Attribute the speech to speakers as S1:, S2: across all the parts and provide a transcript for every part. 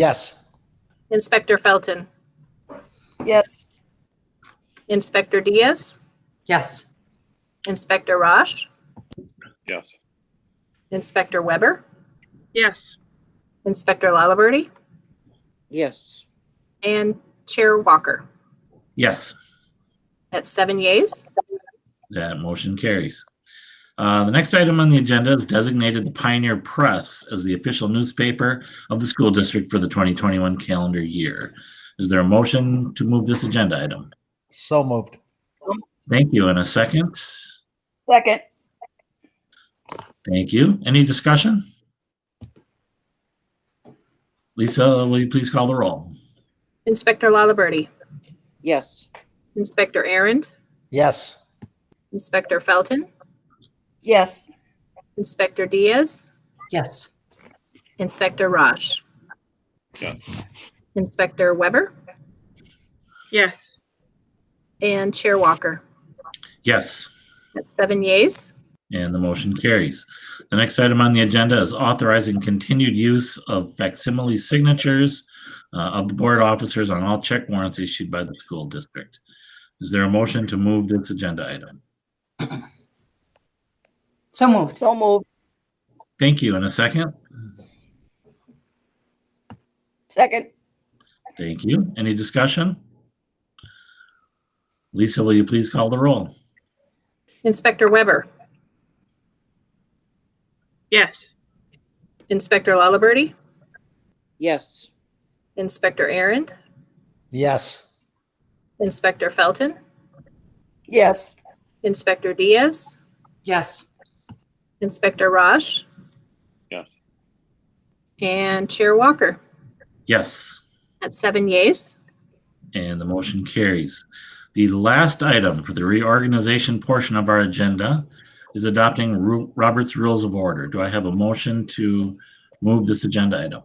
S1: Yes.
S2: Inspector Felton,
S3: Yes.
S2: Inspector Diaz,
S4: Yes.
S2: Inspector Roche,
S5: Yes.
S2: Inspector Weber,
S6: Yes.
S2: Inspector Lalaberty,
S3: Yes.
S2: and Chair Walker.
S7: Yes,
S2: At seven yeas,
S7: that motion carries. Uh, The next item on the agenda is designated the Pioneer Press as the official newspaper of the school district for the 2021 calendar year. Is there a motion to move this agenda item?
S1: So moved.
S7: Thank you. And a second?
S3: Second.
S7: Thank you. Any discussion? Lisa, will you please call the roll?
S2: Inspector Lalaberty,
S3: Yes.
S2: Inspector Arndt,
S1: Yes.
S2: Inspector Felton,
S3: Yes.
S2: Inspector Diaz,
S4: Yes.
S2: Inspector Roche,
S5: Yes.
S2: Inspector Weber,
S6: Yes.
S2: and Chair Walker.
S7: Yes.
S2: At seven yeas,
S7: And the motion carries. The next item on the agenda is authorizing continued use of facsimile signatures uh, of the board officers on all check warrants issued by the school district. Is there a motion to move this agenda item?
S4: So moved.
S3: So moved.
S7: Thank you. And a second?
S3: Second.
S7: Thank you. Any discussion? Lisa, will you please call the roll?
S2: Inspector Weber,
S6: Yes.
S2: Inspector Lalaberty,
S3: Yes.
S2: Inspector Arndt,
S1: Yes.
S2: Inspector Felton,
S3: Yes.
S2: Inspector Diaz,
S4: Yes.
S2: Inspector Roche,
S5: Yes.
S2: And Chair Walker.
S7: Yes.
S2: At seven yeas,
S7: And the motion carries. The last item for the reorganization portion of our agenda is adopting Ru- Robert's Rules of Order. Do I have a motion to move this agenda item?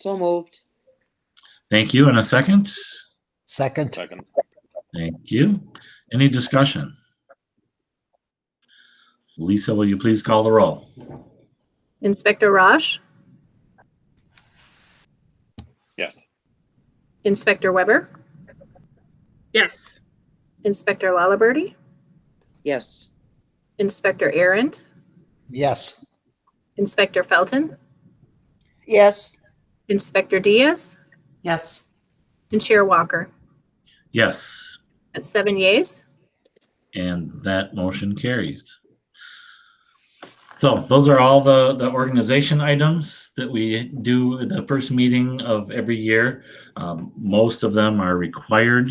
S3: So moved.
S7: Thank you. And a second?
S1: Second.
S5: Second.
S7: Thank you. Any discussion? Lisa, will you please call the roll?
S2: Inspector Raj,
S5: Yes.
S2: Inspector Weber,
S6: Yes.
S2: Inspector Lalaberty,
S3: Yes.
S2: Inspector Errant,
S1: Yes.
S2: Inspector Felton,
S3: Yes.
S2: Inspector Diaz,
S4: Yes.
S2: and Chair Walker.
S7: Yes.
S2: At seven yeas,
S7: And that motion carries. So those are all the, the organization items that we do at the first meeting of every year. Um, most of them are required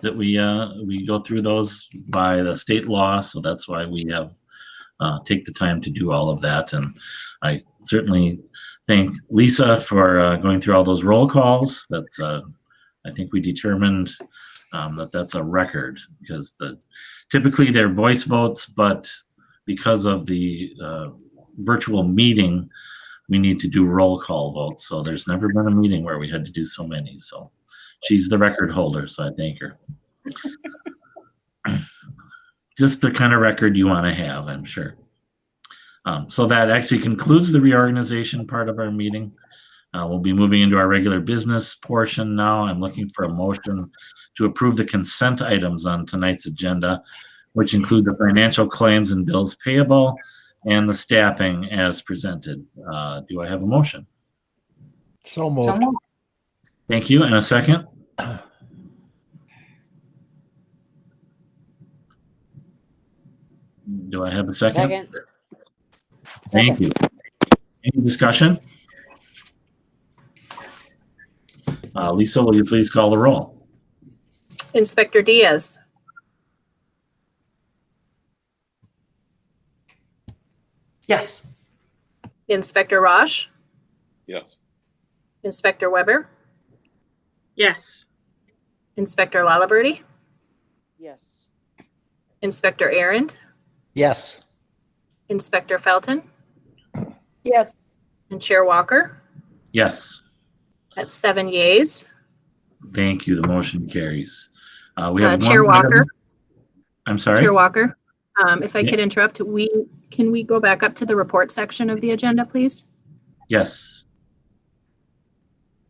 S7: that we, uh, we go through those by the state law. So that's why we have, uh, take the time to do all of that. And I certainly thank Lisa for, uh, going through all those roll calls. That's, uh, I think we determined, um, that that's a record because the typically they're voice votes, but because of the uh, virtual meeting, we need to do roll call votes. So there's never been a meeting where we had to do so many. So she's the record holder, so I thank her. Just the kind of record you want to have, I'm sure. Um, so that actually concludes the reorganization part of our meeting. Uh, we'll be moving into our regular business portion now. I'm looking for a motion to approve the consent items on tonight's agenda which include the financial claims and bills payable and the staffing as presented. Uh, Do I have a motion?
S1: So
S4: So
S1: moved.
S4: moved.
S7: Thank you. And a second? Do I have a second?
S3: Second.
S7: Thank you. Any discussion? Uh, Lisa, will you please call the roll?
S2: Inspector Diaz,
S4: Yes.
S2: Inspector Raj,
S5: Yes.
S2: Inspector Weber,
S6: Yes.
S2: Inspector Lalaberty,
S3: Yes.
S2: Inspector Errant,
S1: Yes.
S2: Inspector Felton,
S3: Yes.
S2: and Chair Walker.
S7: Yes.
S2: At seven yeas,
S7: Thank you. The motion carries. Uh, We have
S2: Uh, Chair
S7: one item-
S2: Walker?
S7: I'm sorry?
S2: Chair Walker, um, if I
S7: Yeah.
S2: could interrupt, we, can we go back up to the report section of the agenda, please?
S7: Yes.